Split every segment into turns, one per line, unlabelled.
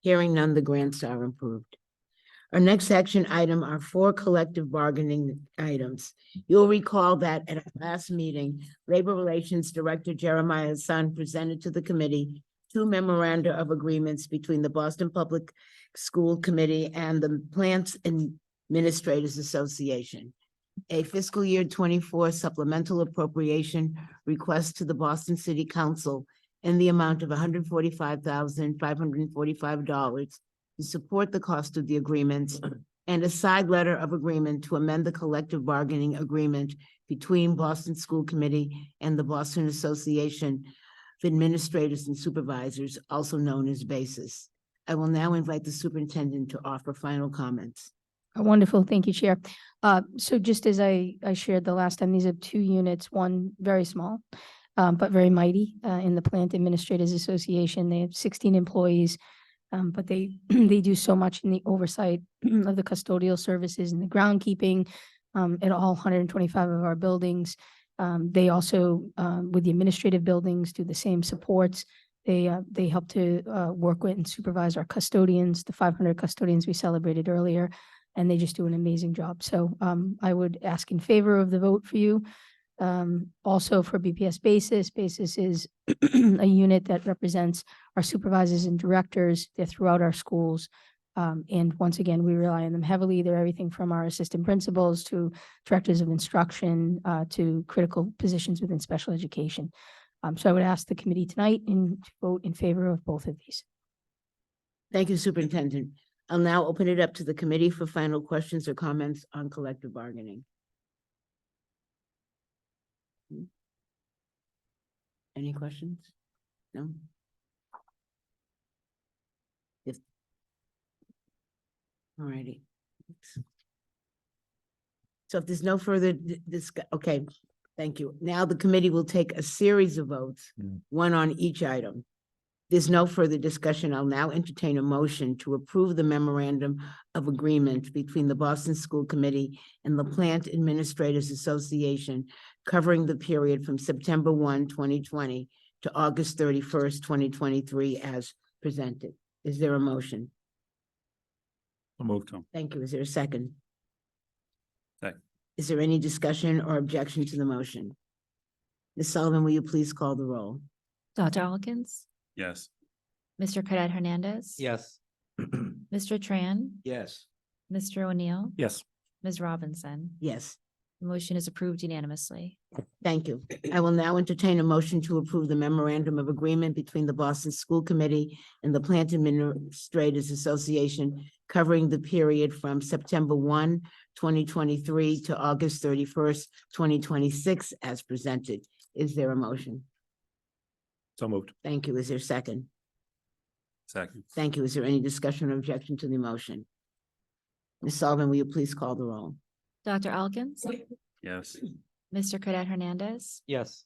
Hearing none, the grants are approved. Our next action item are four collective bargaining items. You'll recall that at our last meeting, Labor Relations Director Jeremiah Hassan presented to the committee two memoranda of agreements between the Boston Public School Committee and the Plants Administrators Association. A fiscal year twenty-four supplemental appropriation request to the Boston City Council in the amount of hundred forty-five thousand, five hundred forty-five dollars to support the cost of the agreements and a side letter of agreement to amend the collective bargaining agreement between Boston School Committee and the Boston Association of Administrators and Supervisors, also known as BASIS. E I will now invite the superintendent to offer final comments.
Wonderful. Thank you, Chair. Uh, so just as I, I shared the last time, these are two units, one very small, uh, but very mighty, uh, in the Plant Administrators Association. They have sixteen employees. Um, but they, they do so much in the oversight of the custodial services and the groundkeeping, um, at all hundred and twenty-five of our buildings. Um, they also, um, with the administrative buildings, do the same supports. They, uh, they help to, uh, work with and supervise our custodians, the five hundred custodians we celebrated earlier and they just do an amazing job. So um, I would ask in favor of the vote for you. Um, also for BPS Basis, Basis is a unit that represents our supervisors and directors. They're throughout our schools. Um, and once again, we rely on them heavily. They're everything from our assistant principals to directors of instruction uh, to critical positions within special education. Um, so I would ask the committee tonight and to vote in favor of both of these.
Thank you, Superintendent. I'll now open it up to the committee for final questions or comments on collective bargaining. Any questions? No? If. All righty. So if there's no further d- discuss, okay, thank you. Now the committee will take a series of votes,
Mm.
one on each item. There's no further discussion. I'll now entertain a motion to approve the memorandum of agreement between the Boston School Committee and the Plant Administrators Association covering the period from September 1, 2020, to August thirty-first, twenty twenty-three as presented. Is there a motion?
I'll move Tom.
Thank you. Is there a second?
Second.
Is there any discussion or objection to the motion? Ms. Sullivan, will you please call the roll?
Dr. Alkins,
Yes.
Mr. Cadet Hernandez.
Yes.
Mr. Tran,
Yes.
Mr. O'Neill,
Yes.
Ms. Robinson.
Yes.
The Motion is approved unanimously.
Thank you. I will now entertain a motion to approve the memorandum of agreement between the Boston School Committee and the Plant Administrators Association covering the period from September 1, 2023, to August thirty-first, twenty twenty-six as presented. Is there a motion?
So moved.
Thank you. Is there a second?
Second.
Thank you. Is there any discussion or objection to the motion? Ms. Sullivan, will you please call the roll?
Dr. Alkins,
Yes.
Mr. Cadet Hernandez,
Yes.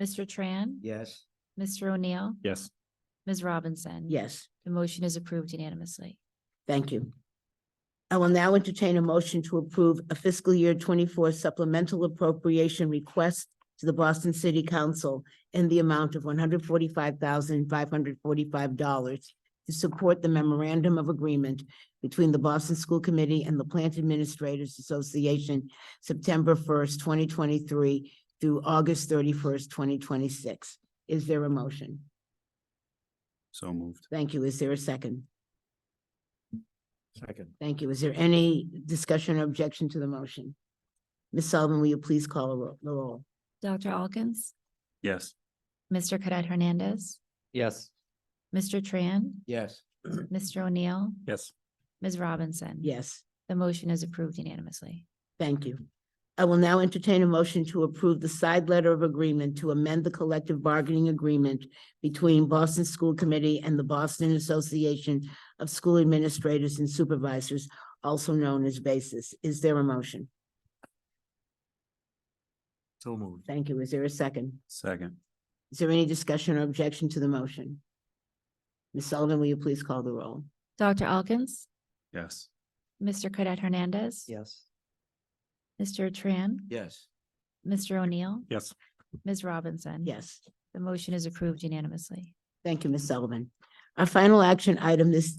Mr. Tran,
Yes.
Mr. O'Neill,
Yes.
Ms. Robinson.
Yes.
The motion is approved unanimously.
Thank you. I will now entertain a motion to approve a fiscal year twenty-four supplemental appropriation request to the Boston City Council in the amount of one hundred forty-five thousand, five hundred forty-five dollars to support the memorandum of agreement between the Boston School Committee and the Plant Administrators Association, September first, twenty twenty-three through August thirty-first, twenty twenty-six. Is there a motion?
So moved.
Thank you. Is there a second?
Second.
Thank you. Is there any discussion or objection to the motion? Ms. Sullivan, will you please call the ro- the roll?
Dr. Alkins,
Yes.
Mr. Cadet Hernandez,
Yes.
Mr. Tran,
Yes.
Mr. O'Neill,
Yes.
Ms. Robinson.
Yes,
The motion is approved unanimously.
thank you. I will now entertain a motion to approve the side letter of agreement to amend the collective bargaining agreement between Boston School Committee and the Boston Association of School Administrators and Supervisors, also known as BASIS. Is there a motion?
So moved.
Thank you. Is there a second?
Second.
Is there any discussion or objection to the motion? Ms. Sullivan, will you please call the roll?
Dr. Alkins,
Yes.
Mr. Cadet Hernandez.
Yes.
Mr. Tran,
Yes.
Mr. O'Neill,
Yes.
Ms. Robinson.
Yes.
The motion is approved unanimously.
Thank you, Ms. Sullivan. Our final action item this